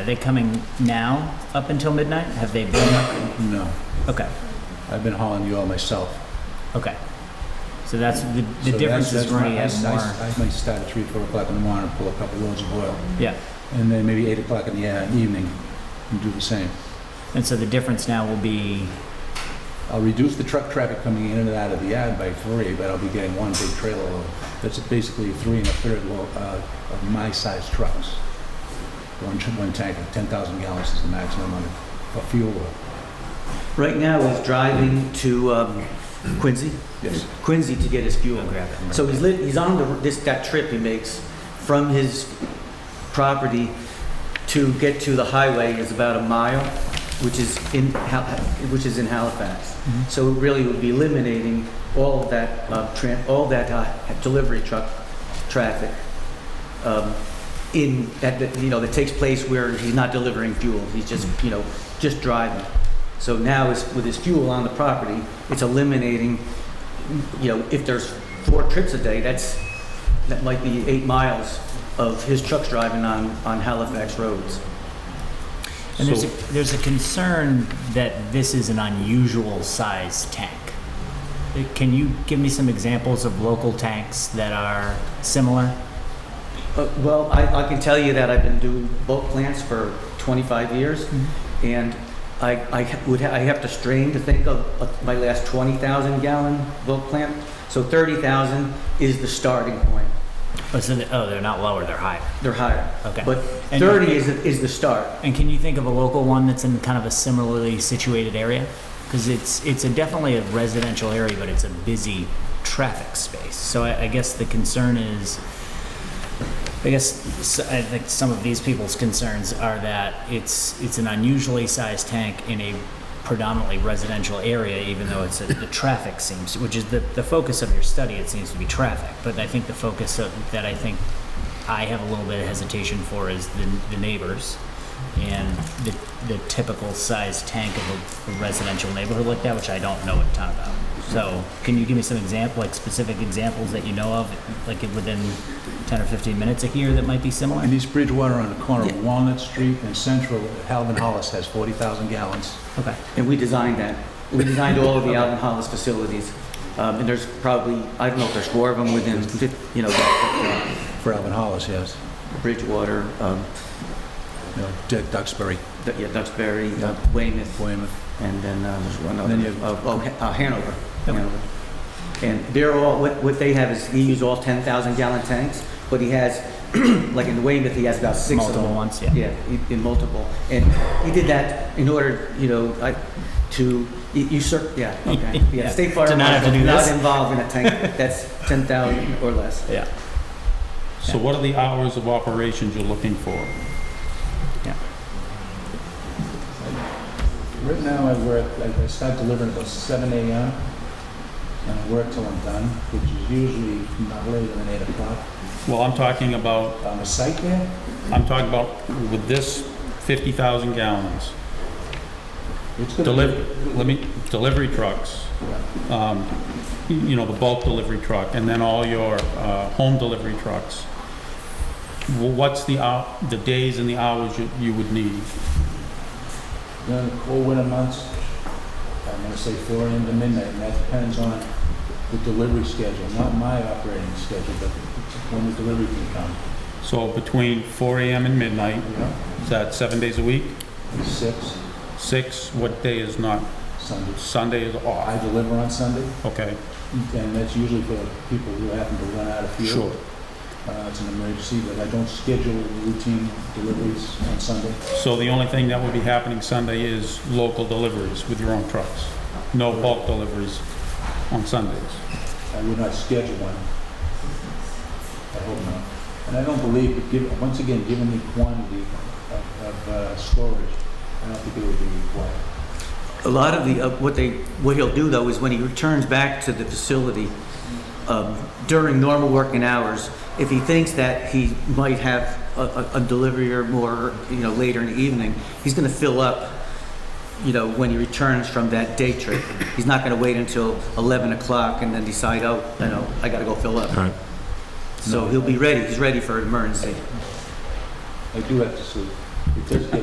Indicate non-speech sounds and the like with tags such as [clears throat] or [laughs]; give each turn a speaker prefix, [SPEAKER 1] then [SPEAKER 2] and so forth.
[SPEAKER 1] Are they coming now up until midnight? Have they been up?
[SPEAKER 2] No,
[SPEAKER 1] Okay,
[SPEAKER 2] I've been hauling you all myself.
[SPEAKER 1] okay. So that's, the,
[SPEAKER 2] So
[SPEAKER 1] the difference is
[SPEAKER 2] that's- that's
[SPEAKER 1] we're
[SPEAKER 2] my-
[SPEAKER 1] gonna
[SPEAKER 2] I-
[SPEAKER 1] have
[SPEAKER 2] I-
[SPEAKER 1] more,
[SPEAKER 2] I might start at three, four o'clock in the morning, pull a couple loads of oil,
[SPEAKER 1] yeah.
[SPEAKER 2] and then maybe eight o'clock in the uh, evening, and do the same.
[SPEAKER 1] And so the difference now will be,
[SPEAKER 2] I'll reduce the truck traffic coming in and out of the yard by three, but I'll be getting one big trailer load. That's basically three and a third load uh, of my size trucks. One, tr- one tank of 10,000 gallons is the maximum on a- a fuel load.
[SPEAKER 3] Right now, he's driving to um, Quincy,
[SPEAKER 2] Yes,
[SPEAKER 3] Quincy to get his fuel grab. So he's lit, he's on the, this, that trip he makes from his property to get to the highway is about a mile, which is in, Hal- which is in Halifax.
[SPEAKER 1] Mhm.
[SPEAKER 3] So it really would be eliminating all of that, uh, tran, all that, uh, delivery truck traffic, um, in, that, that, you know, that takes place where he's not delivering fuel, he's just, you know, just driving. So now is, with his fuel on the property, it's eliminating, you know, if there's four trips a day, that's, that might be eight miles of his trucks driving on, on Halifax roads.
[SPEAKER 1] and there's a, there's a concern that this is an unusual size tank. Uh, Can you give me some examples of local tanks that are similar?
[SPEAKER 3] Uh, Well, I, I can tell you that I've been doing bulk plants for 25 years,
[SPEAKER 1] Mm-hmm.
[SPEAKER 3] and I, I would, ha- I have to strain to think of uh, my last 20,000 gallon bulk plant. So 30,000 is the starting point.
[SPEAKER 1] Oh, so, they- oh, they're not lower, they're higher.
[SPEAKER 3] They're higher.
[SPEAKER 1] Okay.
[SPEAKER 3] But
[SPEAKER 1] And-
[SPEAKER 3] 30 is, is the start.
[SPEAKER 1] And can you think of a local one that's in kind of a similarly situated area? Because it's it's a definitely a residential area, but it's a busy traffic space. So I, I guess the concern is, I guess s- I think some of these people's concerns are that it's it's an unusually sized tank in a predominantly residential area, even though it's a, the traffic seems, which is the the focus of your study. It seems to be traffic, but I think the focus of, that I think I have a little bit of hesitation for is the the neighbors and the, the typical size tank of a- a residential neighborhood like that, which I don't know a ton about. So can you give me some example, like specific examples that you know of, like within 10 or 15 minutes of here that might be similar?
[SPEAKER 2] in East Bridgewater on the corner of Walnut Street and Central, Halvin Hollis has 40,000 gallons.
[SPEAKER 1] Okay,
[SPEAKER 3] And we designed that. We designed all of the Alvin Hollis facilities. Um, and there's probably, I don't know if there's four of them within, fif- you know, that-
[SPEAKER 2] For Alvin Hollis, yes.
[SPEAKER 3] that Bridgewater, um,
[SPEAKER 2] You know, Du- Duxbury,
[SPEAKER 3] Du- yeah, Duxbury, uh,
[SPEAKER 2] Yeah.
[SPEAKER 3] Weymouth,
[SPEAKER 2] Weymouth.
[SPEAKER 3] and then, uh, there's one
[SPEAKER 2] And then you
[SPEAKER 3] other,
[SPEAKER 2] have-
[SPEAKER 3] oh, oh, Ha- uh, Hanover.
[SPEAKER 1] Yep.
[SPEAKER 3] Hanover. And they're all, what, what they have is, they use all ten thousand gallon tanks, but he has, [clears throat] like in Weymouth, he has about six of them.
[SPEAKER 1] multiple ones, yeah.
[SPEAKER 3] Yeah, in- in multiple. And he did that in order, you know, I- to usurp, yeah,
[SPEAKER 1] [laughs]
[SPEAKER 3] okay.
[SPEAKER 1] Yeah,
[SPEAKER 3] Yeah, State Fire
[SPEAKER 1] to not have to
[SPEAKER 3] Marshal
[SPEAKER 1] do
[SPEAKER 3] not
[SPEAKER 1] this.
[SPEAKER 3] involved in a tank that's 10,000 or less.
[SPEAKER 1] Yeah.
[SPEAKER 4] So what are the hours of operations you're looking for?
[SPEAKER 2] Right now, I work, I I start delivering about seven AM, and I work till I'm done, which is usually not later than eight o'clock.
[SPEAKER 4] Well, I'm talking about,
[SPEAKER 2] On the site there,
[SPEAKER 4] I'm talking about with this 50,000 gallons,
[SPEAKER 2] it's gonna be...
[SPEAKER 4] deliver, let me, delivery trucks, um, you know, the bulk delivery truck, and then all your uh, home delivery trucks. Wh- What's the, hou- the days and the hours you- you would need?
[SPEAKER 2] During the cold winter months, I'm gonna say four AM to midnight, and that depends on the delivery schedule, not my operating schedule, but when the delivery can come,
[SPEAKER 4] So between 4 AM and midnight,
[SPEAKER 2] you know?
[SPEAKER 4] is that seven days a week?
[SPEAKER 2] Six,
[SPEAKER 4] Six, what day is not,
[SPEAKER 2] Sundays.
[SPEAKER 4] Sunday is
[SPEAKER 2] I
[SPEAKER 4] off,
[SPEAKER 2] deliver on Sunday,
[SPEAKER 4] okay,
[SPEAKER 2] and that's usually for people who happen to run out of fuel.
[SPEAKER 4] sure.
[SPEAKER 2] Uh, It's an emergency, but I don't schedule routine deliveries on Sunday.
[SPEAKER 4] So the only thing that would be happening Sunday is local deliveries with your own trucks? No bulk deliveries on Sundays?
[SPEAKER 2] I would not schedule one. I hope not. And I don't believe, but given, once again, given the quantity of, of uh, storage, I don't think it would be required.
[SPEAKER 3] A lot of the, uh, what they, what he'll do though is when he returns back to the facility um, during normal working hours, if he thinks that he might have a, a- a delivery or more, you know, later in the evening, he's gonna fill up, you know, when he returns from that day trip. He's not gonna wait until 11 o'clock and then decide, oh, you know, I gotta go fill up. So he'll be ready, he's ready for an emergency.
[SPEAKER 2] I do have to sleep. It does get